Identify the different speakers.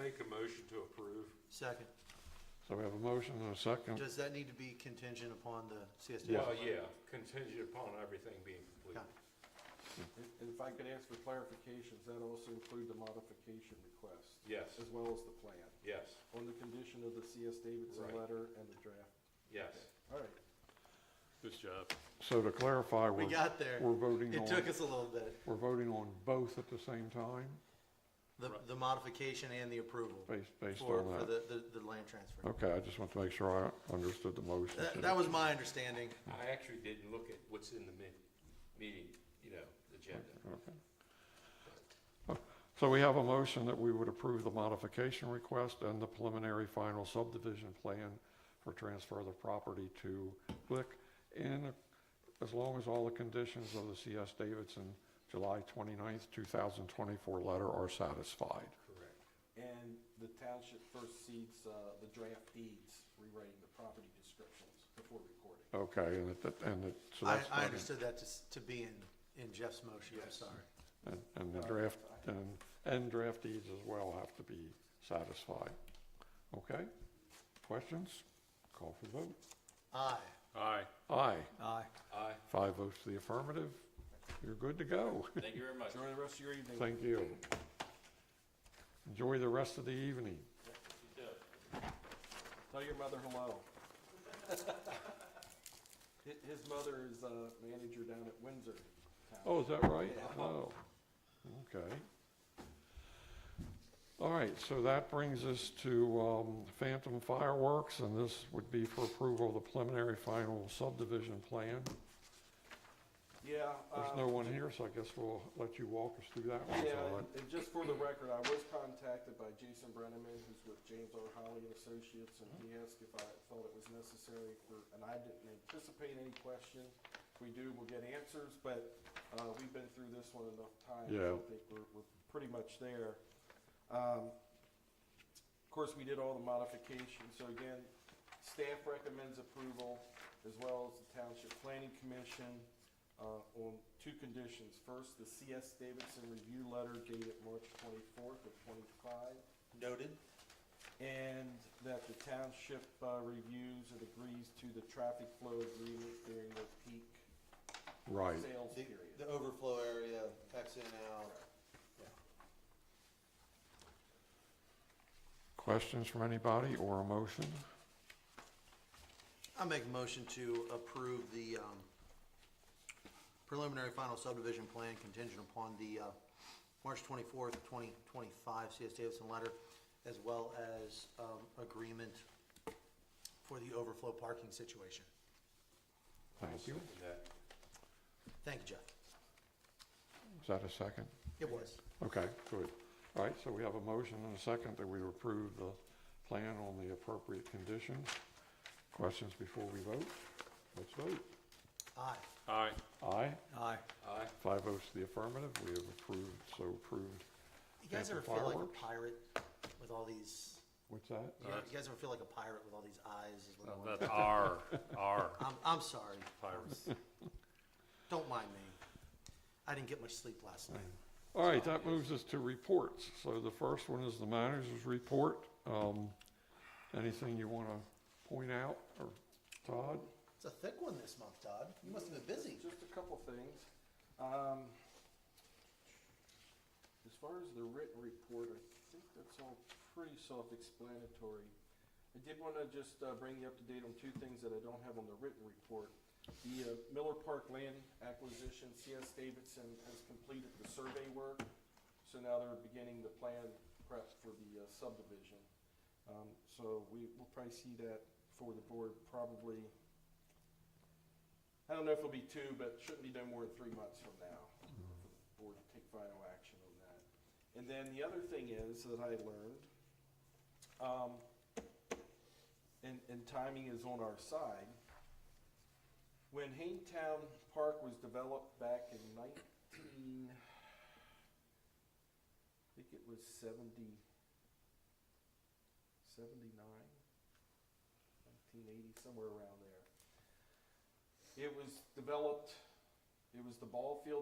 Speaker 1: make a motion to approve?
Speaker 2: Second,
Speaker 3: So we have a motion and a second.
Speaker 2: does that need to be contingent upon the CSD?
Speaker 1: Well, yeah, contingent upon everything being completed.
Speaker 4: And and if I could ask for clarifications, that also include the modification request,
Speaker 1: Yes,
Speaker 4: as well as the plan,
Speaker 1: yes,
Speaker 4: on the condition of the C.S. Davidson
Speaker 1: Right.
Speaker 4: letter and the draft.
Speaker 1: yes.
Speaker 4: All right,
Speaker 1: Good job.
Speaker 3: So to clarify,
Speaker 2: We
Speaker 3: we're,
Speaker 2: got there.
Speaker 3: we're voting
Speaker 2: It took
Speaker 3: on,
Speaker 2: us a little bit,
Speaker 3: we're voting on both at the same time,
Speaker 2: the, the modification and the approval
Speaker 3: based, based
Speaker 2: for, for
Speaker 3: on that.
Speaker 2: the, the, the land transfer.
Speaker 3: Okay, I just want to make sure I understood the motion.
Speaker 2: That,
Speaker 3: too.
Speaker 2: that was my understanding.
Speaker 1: I actually didn't look at what's in the min, meeting, you know, agenda.
Speaker 3: Okay. Oh, So we have a motion that we would approve the modification request and the preliminary final subdivision plan for transfer of the property to Glick in, as long as all the conditions of the C.S. Davidson July 29th, 2024 letter are satisfied.
Speaker 1: Correct.
Speaker 4: and the township first seeds, uh, the draft deeds, rewriting the property descriptions before recording.
Speaker 3: Okay, and it, and it, so
Speaker 2: I,
Speaker 3: that's.
Speaker 2: I understood that to, s- to be in, in Jeff's motion, I'm
Speaker 4: Yes.
Speaker 2: sorry.
Speaker 3: And, and the draft, and, and draft deeds as well have to be satisfied. Okay? Questions? Call for the vote.
Speaker 2: Aye.
Speaker 1: Aye.
Speaker 3: Aye.
Speaker 2: Aye.
Speaker 1: Aye.
Speaker 3: Five votes to the affirmative. You're good to go.
Speaker 1: Thank you very much.
Speaker 4: Enjoy the rest of your evening.
Speaker 3: Thank you. Enjoy the rest of the evening.
Speaker 4: Tell your mother hello. Hi- His mother is a manager down at Windsor. Town.
Speaker 3: Oh, is that right? Oh, okay. All right, so that brings us to um, Phantom Fireworks, and this would be for approval of the preliminary final subdivision plan.
Speaker 4: Yeah.
Speaker 3: There's
Speaker 4: uh,
Speaker 3: no one here, so I guess we'll let you walk us through that one.
Speaker 4: Yeah,
Speaker 3: Todd.
Speaker 4: and- and just for the record, I was contacted by Jason Brenneman, who's with James R. Holly and Associates, and he asked if I felt it was necessary for, and I didn't anticipate any question. If we do, we'll get answers, but, uh, we've been through this one enough times.
Speaker 3: Yeah.
Speaker 4: I think we're, we're pretty much there. Um, of course, we did all the modifications, so again, staff recommends approval as well as the Township Planning Commission uh, on two conditions. First, the CS Davidson review letter dated March twenty-fourth of twenty-five,
Speaker 2: Noted.
Speaker 4: and that the township uh, reviews and agrees to the traffic flow agreement during the peak
Speaker 3: Right,
Speaker 4: sales
Speaker 2: The,
Speaker 4: period.
Speaker 2: the overflow area, X in out.
Speaker 3: questions from anybody or a motion?
Speaker 2: I make a motion to approve the, um, preliminary final subdivision plan contingent upon the, uh, March twenty-fourth, twenty twenty-five CS Davidson letter, as well as, um, agreement for the overflow parking situation.
Speaker 3: Thank you.
Speaker 1: That-
Speaker 2: Thank you, Jeff.
Speaker 3: Is that a second?
Speaker 2: It was.
Speaker 3: Okay, good. All right, so we have a motion and a second that we approve the plan on the appropriate conditions. Questions before we vote? Let's vote.
Speaker 2: Aye.
Speaker 1: Aye.
Speaker 3: Aye,
Speaker 2: Aye.
Speaker 1: Aye.
Speaker 3: five votes to the affirmative, we have approved, so approved.
Speaker 2: You guys ever
Speaker 3: Phantom
Speaker 2: feel like
Speaker 3: fireworks?
Speaker 2: a pirate with all these,
Speaker 3: What's that?
Speaker 2: you guys- you guys ever feel like a pirate with all these eyes? and little ones?
Speaker 5: That's R, R.
Speaker 2: I'm, I'm sorry. Pirates. Don't mind me. I didn't get much sleep last night.
Speaker 3: All right, that moves us to reports. So the first one is the manager's report. Um, anything you want to point out, or Todd?
Speaker 2: It's a thick one this month, Todd. You must have been busy.
Speaker 4: Just a couple things. Um, As far as the written report, I think that's all pretty self-explanatory. I did want to just uh, bring you up to date on two things that I don't have on the written report. The uh, Miller Park land acquisition, CS Davidson has completed the survey work, so now they're beginning the plan prep for the uh, subdivision. Um, So we will probably see that for the board probably, I don't know if it'll be two, but shouldn't be no more than three months from now for the board to take final action on that. And then the other thing is that I learned, um, and, and timing is on our side. When Haintown Park was developed back in nineteen, I think it was seventy, seventy-nine, nineteen eighty, somewhere around there. It was developed, it was the ball field